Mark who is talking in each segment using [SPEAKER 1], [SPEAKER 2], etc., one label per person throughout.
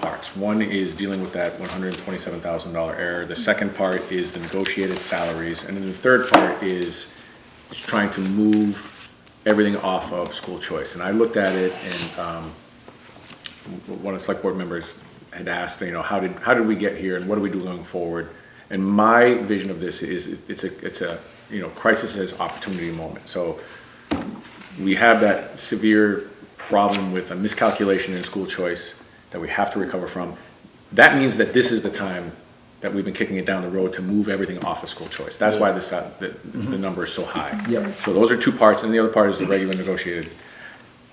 [SPEAKER 1] parts. One is dealing with that $127,000 error. The second part is the negotiated salaries. And then the third part is trying to move everything off of school choice. And I looked at it and um, one of the select board members had asked, you know, how did, how did we get here and what do we do going forward? And my vision of this is, it's a, it's a, you know, crisis as opportunity moment. So we have that severe problem with a miscalculation in school choice that we have to recover from. That means that this is the time that we've been kicking it down the road to move everything off of school choice. That's why this, uh, the, the number is so high.
[SPEAKER 2] Yep.
[SPEAKER 1] So those are two parts, and the other part is the regular negotiated.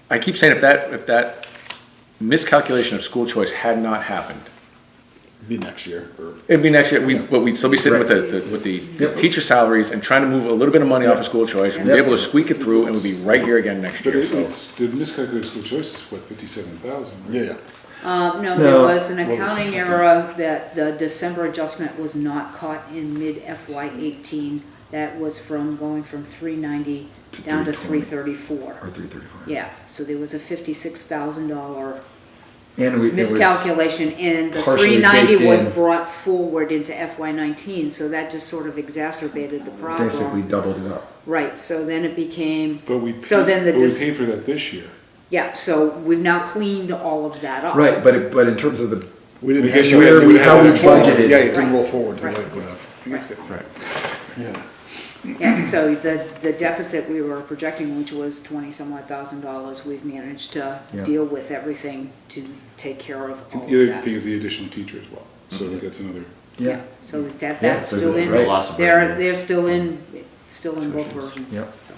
[SPEAKER 1] I keep saying if that, if that miscalculation of school choice had not happened,
[SPEAKER 2] Be next year or
[SPEAKER 1] it'd be next year, we, but we'd still be sitting with the, the- with the
[SPEAKER 2] Yep.
[SPEAKER 1] teacher salaries and trying to move a little bit of money off of school choice, and be
[SPEAKER 2] Yep.
[SPEAKER 1] able to squeak it through, and we'd be right here again next
[SPEAKER 3] But
[SPEAKER 1] year,
[SPEAKER 3] it,
[SPEAKER 1] so.
[SPEAKER 3] it's, the miscalculated school choice is what, fifty-seven thousand, right?
[SPEAKER 2] yeah, yeah.
[SPEAKER 4] Uh, no,
[SPEAKER 2] No.
[SPEAKER 4] there was an
[SPEAKER 2] What was the
[SPEAKER 4] accounting
[SPEAKER 2] second?
[SPEAKER 4] error that the December adjustment was not caught in mid FY eighteen. That was from going from three ninety down to three
[SPEAKER 5] or
[SPEAKER 4] thirty-four.
[SPEAKER 5] three thirty-five.
[SPEAKER 4] Yeah, so there was a fifty-six thousand dollar
[SPEAKER 2] And we, it was,
[SPEAKER 4] miscalculation and the
[SPEAKER 2] partially
[SPEAKER 4] three ninety
[SPEAKER 2] baked
[SPEAKER 4] was
[SPEAKER 2] in.
[SPEAKER 4] brought forward into FY nineteen, so that just sort of exacerbated the problem.
[SPEAKER 5] Basically doubled it up.
[SPEAKER 4] Right, so then it became,
[SPEAKER 3] But we,
[SPEAKER 4] So
[SPEAKER 3] paid-
[SPEAKER 4] then the
[SPEAKER 3] but we
[SPEAKER 4] dis-
[SPEAKER 3] paid for that this year.
[SPEAKER 4] yeah, so we've now cleaned all of that up.
[SPEAKER 5] Right, but, it- but in terms of the,
[SPEAKER 2] we didn't
[SPEAKER 5] Because
[SPEAKER 2] have
[SPEAKER 5] where
[SPEAKER 2] that-
[SPEAKER 5] we-
[SPEAKER 2] didn't
[SPEAKER 5] how
[SPEAKER 2] have
[SPEAKER 5] we
[SPEAKER 2] that forward.
[SPEAKER 5] budgeted.
[SPEAKER 2] Yeah, it didn't roll
[SPEAKER 4] Right.
[SPEAKER 2] forward to
[SPEAKER 4] Right.
[SPEAKER 2] like enough.
[SPEAKER 3] Right.
[SPEAKER 2] Yeah.
[SPEAKER 4] Yeah, so the, the deficit we were projecting, which was twenty-some-odd thousand dollars, we've managed to
[SPEAKER 5] Yeah.
[SPEAKER 4] deal with everything to take care of all
[SPEAKER 3] And The other
[SPEAKER 4] of
[SPEAKER 3] thing
[SPEAKER 4] that.
[SPEAKER 3] is the addition of teacher as well, so
[SPEAKER 2] Mm-hmm.
[SPEAKER 3] that's another,
[SPEAKER 5] yeah,
[SPEAKER 4] So that,
[SPEAKER 5] Yeah,
[SPEAKER 4] that's
[SPEAKER 5] there's
[SPEAKER 4] still
[SPEAKER 5] a-
[SPEAKER 4] in,
[SPEAKER 5] right.
[SPEAKER 6] Loss of
[SPEAKER 4] they're,
[SPEAKER 6] revenue.
[SPEAKER 4] they're still in, still in both versions.
[SPEAKER 5] Yeah.
[SPEAKER 4] so.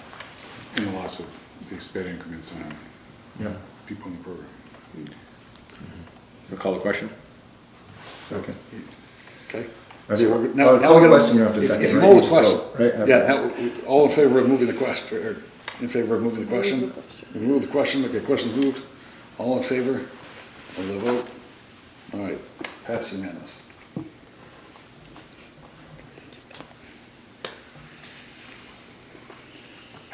[SPEAKER 3] and the loss of the sped increments on
[SPEAKER 5] yeah,
[SPEAKER 3] people in the program.
[SPEAKER 1] Recall the question?
[SPEAKER 5] okay.
[SPEAKER 2] Okay.
[SPEAKER 5] Okay,
[SPEAKER 2] So
[SPEAKER 5] well,
[SPEAKER 2] we're-
[SPEAKER 5] call
[SPEAKER 2] now-
[SPEAKER 5] the
[SPEAKER 2] now we're gonna-
[SPEAKER 5] question, you don't have to
[SPEAKER 2] if-
[SPEAKER 5] second,
[SPEAKER 2] If
[SPEAKER 5] right?
[SPEAKER 2] you hold the
[SPEAKER 5] You just vote,
[SPEAKER 2] question,
[SPEAKER 5] right?
[SPEAKER 2] yeah, now, all in favor of moving the question, or in favor of moving the question? Remove the question, okay, question's moved, all in favor of the vote? All right, pass unanimous.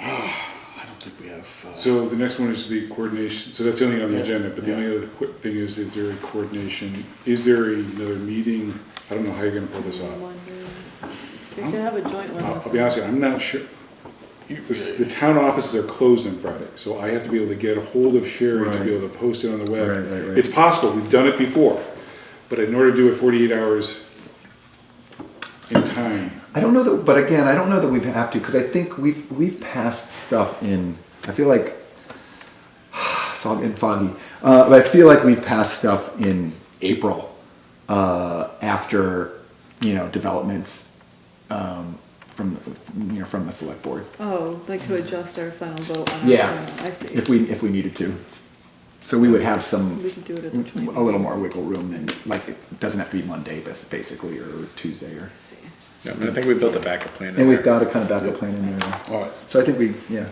[SPEAKER 2] I don't think we have, uh,
[SPEAKER 3] So the next one is the coordination, so that's the only on the
[SPEAKER 2] Yeah.
[SPEAKER 3] agenda, but the
[SPEAKER 2] Yeah.
[SPEAKER 3] only other quick thing is, is there a coordination, is there another meeting? I don't know how you're gonna pull this off.
[SPEAKER 7] We could have a joint
[SPEAKER 3] I'll
[SPEAKER 7] one.
[SPEAKER 3] I'll be honest with you, I'm not sure. You- The the town offices are closed on Friday, so I have to be able to get a hold of Sherry to
[SPEAKER 5] Right.
[SPEAKER 3] be able to post it on the web.
[SPEAKER 5] Right, right, right.
[SPEAKER 3] It's possible, we've done it before, but in order to do it 48 hours in time,
[SPEAKER 5] I don't know that, but again, I don't know that we have to, because I think we've, we've passed stuff in, I feel like, so I'm in foggy, uh, but I feel like we've passed stuff in April, uh, after, you know, developments, um, from, you know, from the select board.
[SPEAKER 7] Oh, like to adjust our final vote on our.
[SPEAKER 5] Yeah,
[SPEAKER 7] final, I see.
[SPEAKER 5] if we, if we needed to. So we would have some,
[SPEAKER 7] We can do it at the 20th.
[SPEAKER 5] Mm, a little more wiggle room than, like, it doesn't have to be Monday, bas- basically, or Tuesday, or.
[SPEAKER 7] See.
[SPEAKER 1] Yeah, I mean, I think we built a backup plan. in
[SPEAKER 5] And we've
[SPEAKER 1] there.
[SPEAKER 5] got a kind of backup plan in there.
[SPEAKER 2] all right,
[SPEAKER 5] So I think we, yeah.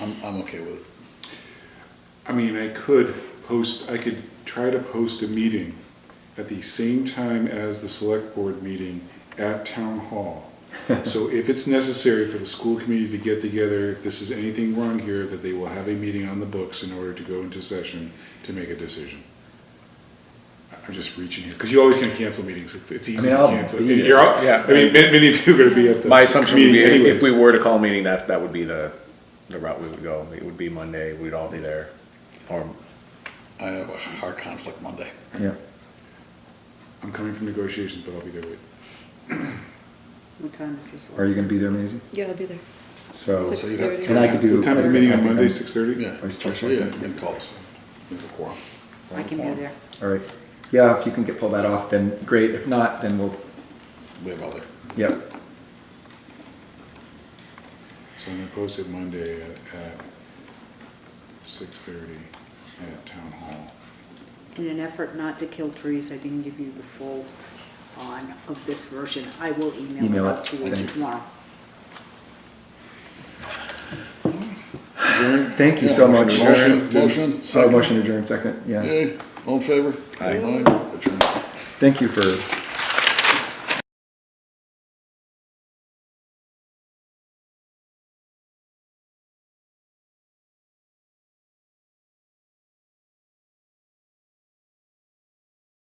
[SPEAKER 2] I'm, I'm okay with it.
[SPEAKER 3] I mean, I could post, I could try to post a meeting at the same time as the select board meeting at town hall. So if it's necessary for the school committee to get together, if this is anything wrong here, that they will have a meeting on the books in order to go into session to make a decision. I- I'm just reaching here, because you always can cancel meetings, It's- it's easy to
[SPEAKER 5] I'll
[SPEAKER 3] cancel.
[SPEAKER 5] be
[SPEAKER 3] You're all-
[SPEAKER 1] Yeah.
[SPEAKER 3] I mean, many, many of you are gonna be at the.
[SPEAKER 1] My assumption would be,
[SPEAKER 3] meeting
[SPEAKER 1] if
[SPEAKER 3] anyways.
[SPEAKER 1] we were to call a meeting, that, that would be the, the route we would go. It would be Monday, we'd all be there. Or,
[SPEAKER 2] I have a hard conflict Monday.
[SPEAKER 5] Yeah.
[SPEAKER 3] I'm coming from negotiations, but I'll be there with.
[SPEAKER 4] What time is this?
[SPEAKER 5] Are you going to be there, Maisie?
[SPEAKER 7] Yeah, I'll be there.
[SPEAKER 5] So,
[SPEAKER 2] So you got
[SPEAKER 7] 6:30.
[SPEAKER 5] and I could do.
[SPEAKER 3] So time's the meeting on Monday, six thirty?
[SPEAKER 2] Yeah,
[SPEAKER 5] Are you still
[SPEAKER 2] actually, yeah,
[SPEAKER 5] checking?
[SPEAKER 2] you can call us, we have a quorum.
[SPEAKER 4] I can be there.
[SPEAKER 5] All right. Yeah, if you can get, pull that off, then great. If not, then we'll,
[SPEAKER 2] We have other.
[SPEAKER 5] yep.
[SPEAKER 3] So I'm gonna post it Monday at, at six thirty at town hall.
[SPEAKER 4] In an effort not to kill trees, I didn't give you the full on of this version. I will email it
[SPEAKER 5] Email it.
[SPEAKER 4] out to you
[SPEAKER 5] Thanks.
[SPEAKER 4] tomorrow.
[SPEAKER 3] Adjourn?
[SPEAKER 5] Thank you so much.
[SPEAKER 2] Motion,
[SPEAKER 3] Adjourn.
[SPEAKER 2] motion,
[SPEAKER 5] So
[SPEAKER 2] second.
[SPEAKER 5] motion adjourned second, yeah.
[SPEAKER 2] Okay, all in favor?
[SPEAKER 1] Aye.
[SPEAKER 2] Aye, adjourned.
[SPEAKER 5] Thank you for